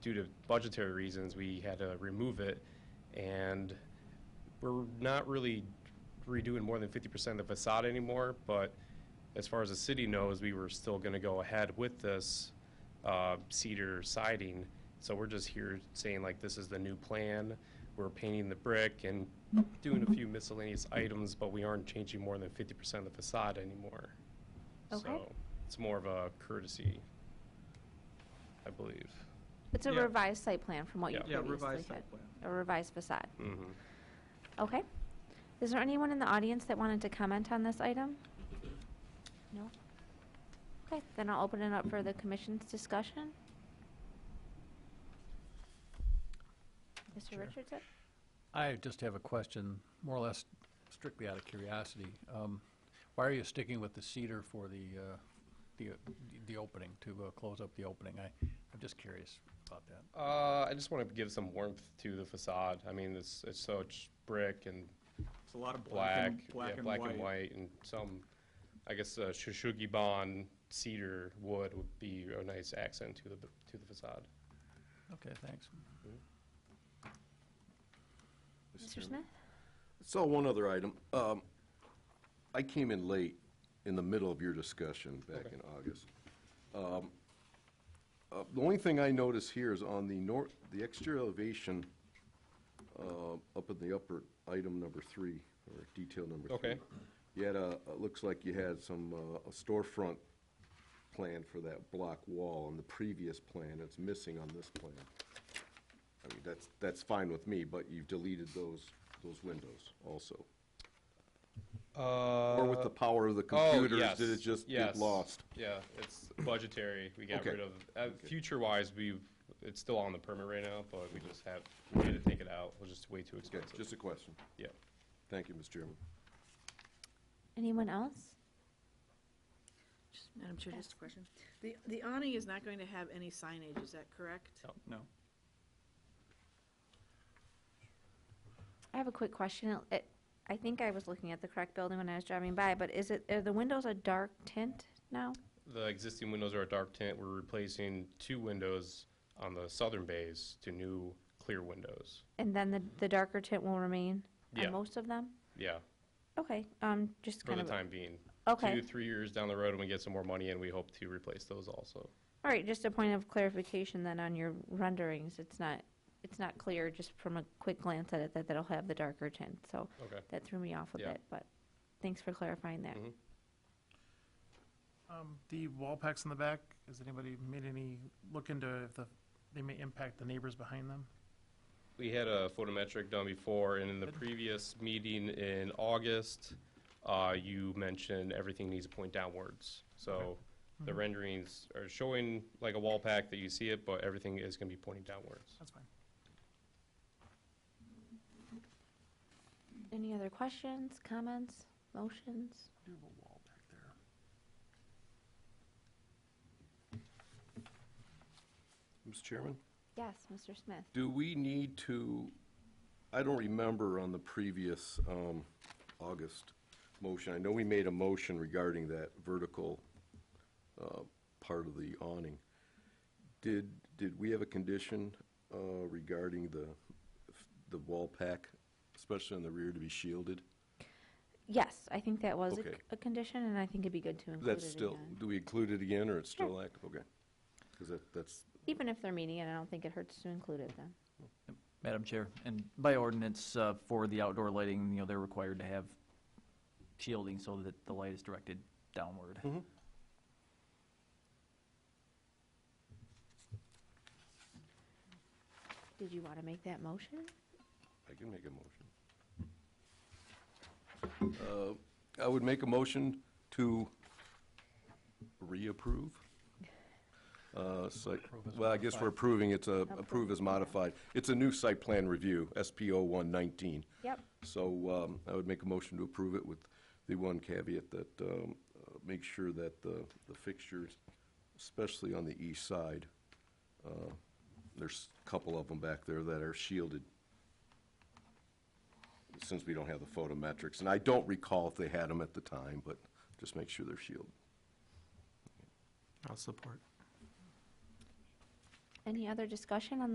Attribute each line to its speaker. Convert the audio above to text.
Speaker 1: due to budgetary reasons, we had to remove it, and we're not really redoing more than 50% of the facade anymore, but as far as the city knows, we were still going to go ahead with this uh, cedar siding, so we're just here saying like, this is the new plan, we're painting the brick and doing a few miscellaneous items, but we aren't changing more than 50% of the facade anymore.
Speaker 2: Okay.
Speaker 1: So It's more of a courtesy, I believe.
Speaker 2: It's a
Speaker 3: Yeah.
Speaker 2: revised site plan from what you
Speaker 1: Yeah.
Speaker 3: Yeah,
Speaker 2: previously had.
Speaker 3: revised site plan.
Speaker 2: A revised facade.
Speaker 1: Mm-hmm.
Speaker 2: Okay. Is there anyone in the audience that wanted to comment on this item? No? Okay, then I'll open it up for the commission's discussion. Mr.
Speaker 4: Chair.
Speaker 2: Richardson?
Speaker 4: I just have a question, more or less strictly out of curiosity. Um, Why are you sticking with the cedar for the, uh, the, uh, the opening, to uh, close up the opening? I, I'm just curious about that.
Speaker 1: Uh, I just want to give some warmth to the facade. I mean, it's, it's such brick and
Speaker 3: It's a lot of
Speaker 1: black,
Speaker 3: black and, black
Speaker 1: yeah,
Speaker 3: and
Speaker 1: black and
Speaker 3: white.
Speaker 1: white, and some, I guess, uh, Shushugiban cedar wood would be a nice accent to the to the facade.
Speaker 4: Okay, thanks.
Speaker 2: Mr. Smith?
Speaker 5: So one other item. Um, I came in late in the middle of your discussion back in August. Um, uh, The only thing I notice here is on the north, the exterior elevation uh, up in the upper item number three, or detail number three.
Speaker 1: Okay.
Speaker 5: You had a, it looks like you had some uh, a storefront plan for that block wall on the previous plan. It's missing on this plan. I mean, that's, that's fine with me, but you've deleted those, those windows also.
Speaker 1: Uh,
Speaker 5: Or with the power of the computers,
Speaker 1: oh, yes,
Speaker 5: did it just
Speaker 1: yes.
Speaker 5: get lost?
Speaker 1: Yeah, it's budgetary. We got
Speaker 5: Okay.
Speaker 1: rid of uh, future-wise. We it's still on the permit right now, but we just have we had to take it out. It was just way too
Speaker 5: Okay,
Speaker 1: expensive.
Speaker 5: just a question.
Speaker 1: yeah.
Speaker 5: Thank you, Mr. Chairman.
Speaker 2: Anyone else?
Speaker 6: Just- Madam Chair, just a question. The, the awning is not going to have any signage, is that correct?
Speaker 3: No.
Speaker 2: I have a quick question. It, I think I was looking at the correct building when I was driving by, but is it, are the windows a dark tint now?
Speaker 1: The existing windows are a dark tint. We're replacing two windows on the southern bays to new clear windows.
Speaker 2: And then the, the darker tint will remain
Speaker 1: Yeah.
Speaker 2: on most of them?
Speaker 1: Yeah,
Speaker 2: Okay, um, just
Speaker 1: for
Speaker 2: kind
Speaker 1: the
Speaker 2: of.
Speaker 1: time being.
Speaker 2: Okay.
Speaker 1: Two, three years down the road, when we get some more money, and we hope to replace those also.
Speaker 2: All right, just a point of clarification then on your renderings, it's not, it's not clear just from a quick glance at it that that'll have the darker tint, so
Speaker 1: Okay.
Speaker 2: that threw me off a
Speaker 1: Yeah.
Speaker 2: bit, but thanks for clarifying that.
Speaker 1: Mhm.
Speaker 7: Um, The wall packs in the back, has anybody made any look into if the, they may impact the neighbors behind them?
Speaker 1: We had a photometric done before, and in the previous meeting in August, uh, you mentioned everything needs to point downwards. So
Speaker 2: Hmm.
Speaker 1: the renderings are showing like a wall pack that you see it, but everything is going to be pointing downwards.
Speaker 7: That's fine.
Speaker 2: Any other questions, comments, motions?
Speaker 4: Do have a wall back there.
Speaker 5: Mr. Chairman?
Speaker 2: Yes, Mr. Smith?
Speaker 5: Do we need to, I don't remember on the previous um, August motion, I know we made a motion regarding that vertical uh, part of the awning. Did, did we have a condition uh, regarding the, the wall pack, especially in the rear, to be shielded?
Speaker 2: Yes, I think that was a,
Speaker 5: Okay.
Speaker 2: c- a condition, and I think it'd be good to include
Speaker 5: That's
Speaker 2: it
Speaker 5: still,
Speaker 2: again.
Speaker 5: do we include it again, or it's
Speaker 2: Sure.
Speaker 5: still active? Okay. Because that, that's,
Speaker 2: Even if they're meeting it, I don't think it hurts to include it then.
Speaker 8: Madam Chair, and by ordinance, uh, for the outdoor lighting, you know, they're required to have shielding so that the light is directed downward.
Speaker 2: Did you want to make that motion?
Speaker 5: I can make a motion. Uh, I would make a motion to reapprove. Uh, site, well, I guess we're approving, it's a, approve as modified. It's a new site plan review, SPO one nineteen.
Speaker 2: Yep.
Speaker 5: So, um, I would make a motion to approve it with the one caveat that, um, uh, make sure that the, the fixtures, especially on the east side, uh, there's a couple of them back there that are shielded since we don't have the photometrics, and I don't recall if they had them at the time, but just make sure they're shielded.
Speaker 7: I'll support.
Speaker 2: Any other discussion on